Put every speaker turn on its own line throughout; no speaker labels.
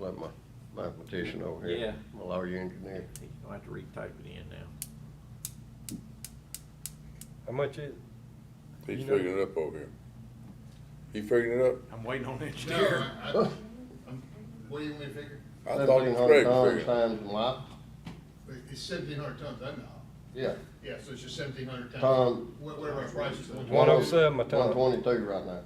I'm a mathematician over here.
Yeah.
I'm a lawyer engineer.
I'll have to retype it in now.
How much is it?
He's
You know-
figuring it up over here. He figuring it up?
I'm waiting on
No,
engineer.
I, I, I'm, what do you want me to figure?
I thought it was Craig
Seventeen hundred
figuring.
tons times life,
It's seventeen hundred tons, I know.
yeah.
Yeah, so it's just seventeen hundred tons.
Ton.
Wh- Whatever our price is.
One oh seven a ton.
One twenty-two right now.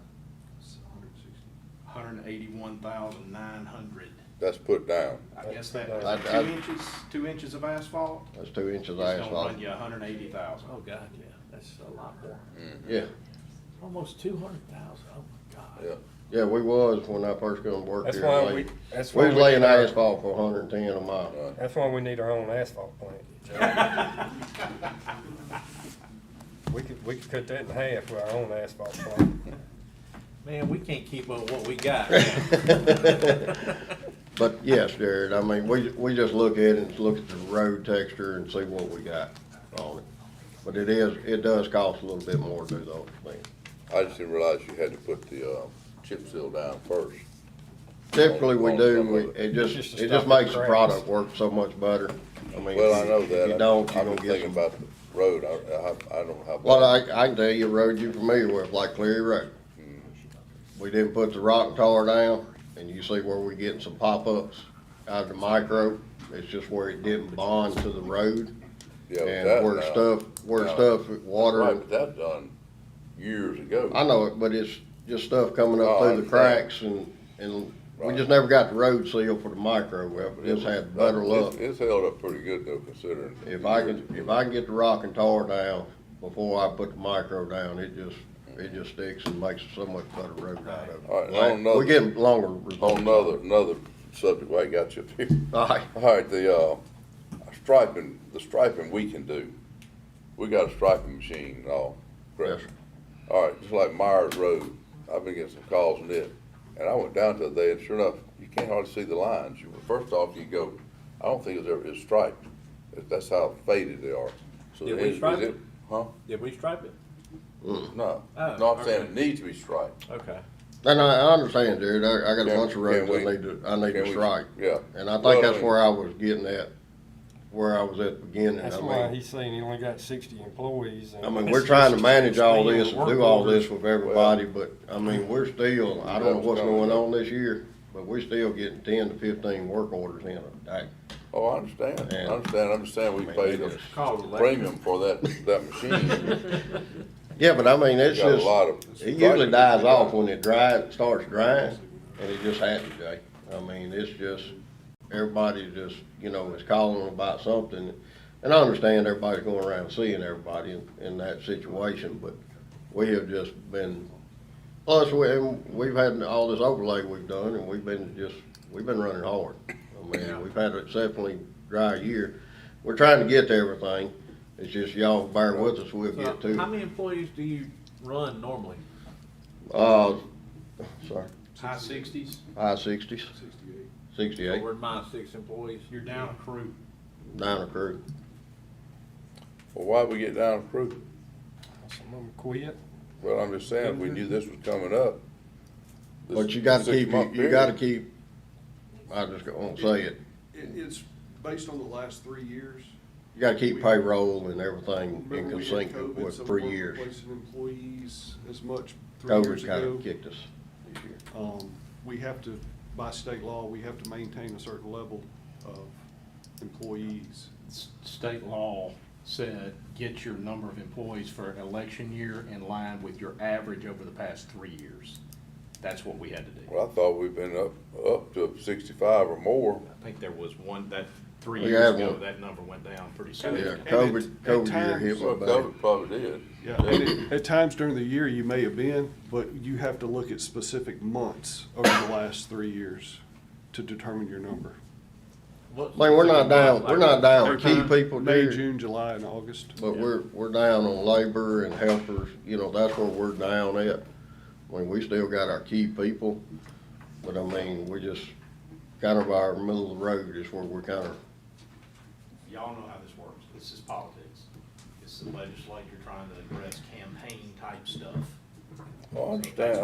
Hundred eighty-one thousand nine hundred.
That's put down.
I guess that,
I-
was
I-
two inches, two inches of asphalt,
That's two inches
it's
of
gonna
asphalt.
run you hundred eighty thousand.
Oh, God, yeah, that's a lot more.
Yeah,
Almost two hundred thousand, oh my God.
Yeah.
yeah, we was when I first come to work
That's
here.
why
like,
we, that's
We
why.
was
we
laying
need our-
asphalt for hundred and ten a mile.
Right.
That's why we need our own asphalt plant. We could, we could cut that in half with our own asphalt plant.
Man, we can't keep up what we got.
Uh.
But yes, Jared, I mean, we, we just look at it and look at the road texture and see what we got on it. But it is, it does cost a little bit more to do those things.
I just didn't realize you had to put the, uh, chip seal down first.
Typically, we
On
do,
some of
we,
it.
it
Just
just,
to
it
stop
just
the
makes the
cracks.
product work so much better. I mean,
Well, I know
if
that.
you don't, you're
I've been
gonna get
thinking
some.
about the road. I, I, I don't have.
Well, I, I can tell you a road you're familiar with, like Cleary Road. We didn't put the rock and tar down, and you see where we're getting some pop-ups out of the micro. It's just where it didn't bond to the road
Yeah, with that
and where
now.
stuff, where
now-
stuff, water.
Right,
and-
but that done years ago.
I know it, but it's just stuff coming
Oh,
up
I
through the
understand.
cracks and, and we
Right.
just never got the road seal for the micro.
But
We
it
just
was-
had better
it's-
luck.
It's held up pretty good though considering.
If
the
I
years.
can, if I can get the rock and tar down before I put the micro down, it just, it just sticks and makes so much better road out of it.
All right, now on another-
We're getting longer
On
results.
another, another subject, why I got you up here.
All right,
All right, the, uh, striping, the striping we can do. We got a striping machine and all.
yes,
correct? All right, just like Myers Road, I've been getting some calls on it. And I went down to there and sure enough, you can't hardly see the lines. You, first off, you go, I don't think it's ever, it's striped. That- That's how faded they are. So
Did
the
we
engine-
stripe
is
it?
Huh?
Did we stripe it?
No.
Oh,
No, I'm saying
okay.
it needs to be striped.
Okay.
and I, I understand, dude, I, I got a
Can-
bunch of
can
roads I
we-
need to, I need
can
to
we-
strike.
Yeah.
And I
Well,
think that's
mean-
where I was getting at, where I was at the beginning,
That's
I
why
mean,
he's saying he only got sixty employees. and-
I mean, we're trying to manage all
Still
this, and
work
do all
orders.
this with everybody, but, I mean, we're still, I don't know what's going on this year, but we're still getting ten to fifteen work orders in a day.
Oh, I understand, I
Yeah.
understand, I understand we
Man,
paid
they
a
just-
Call it electric.
premium for that, that machine.
Yeah, but I mean,
We
it's
Got a
just,
lot of.
it usually dies off when it dries, starts drying, and it just happens, Jay. I mean, it's just, everybody just, you know, is calling about something. And I understand everybody's going around seeing everybody in, in that situation, but we have just been, plus, we, and we've had all this overlay we've done, and we've been just, we've been running hard. I
Yeah.
mean, we've had an exceptionally dry year. We're trying to get to everything. It's just y'all bear with us, we'll get to
So
it.
how many employees do you run normally?
Uh, sorry,
High sixties,
high sixties,
Sixty-eight.
So
sixty-eight,
We're at my six employees.
you're down a crew.
nine crew.
Well, why'd we get down approved?
Some of them quit.
Well, I'm just saying, if we knew this was coming up. this
But you gotta keep, you-
six-month
you gotta
period,
keep, I just won't say it,
It, it's based on the last three years.
you gotta keep payroll and everything in
Remember we had
consync
COVID,
with
so we
three
weren't
years.
Replacing employees as much three
COVID
years
kinda
ago.
kicked us this year.
Um, we have to, by state law, we have to maintain a certain level of employees.
S- State law said, get your number of employees for election year in line with your average over the past three years. That's what we had to do.
Well, I thought we've been up, up to sixty-five or more.
I think there was one, that, three
We
years
had
ago,
one.
that number went down pretty
Yeah,
significantly.
COVID,
it's- at
COVID year
times-
hit
So
me bad.
COVID probably did.
Yeah, and at, at times during the year you may have been, but you have to look at specific months over the last three years to determine your number.
What's-
I mean, we're not down, we're not down
Third
key
time?
people,
May,
dude,
June, July, and August.
but we're, we're down on labor and helpers, you know, that's where we're down at. I mean, we still got our key people, but I mean, we just, kind of our middle of the road is where we're kind of
Y'all know how this works. This is politics. It's the legislature trying to address campaign-type stuff.
Well, I understand,